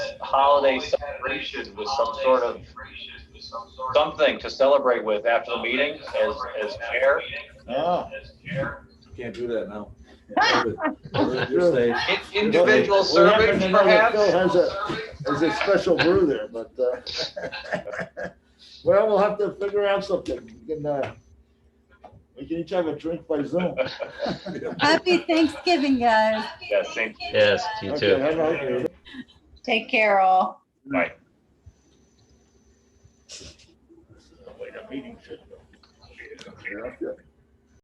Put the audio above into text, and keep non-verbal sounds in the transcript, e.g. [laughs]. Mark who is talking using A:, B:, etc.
A: holiday celebration with some sort of something to celebrate with after the meeting as, as chair.
B: Ah,
C: Can't do that now.
B: Sure.
C: You're safe.
A: In- Individual
B: What
A: servings
B: happened to know that Phil
A: perhaps?
B: Has a, has a special brew there, but, uh, [laughs] well, we'll have to figure out something. We can, uh, we can each have a drink
A: [laughs]
B: by Zoom.
D: Happy Thanksgiving, guys.
A: Yes, same.
E: Yes, you
B: Okay,
E: too.
B: have a-
D: Take care, all.
A: Right.
B: Wait, a meeting should go. Yeah, okay.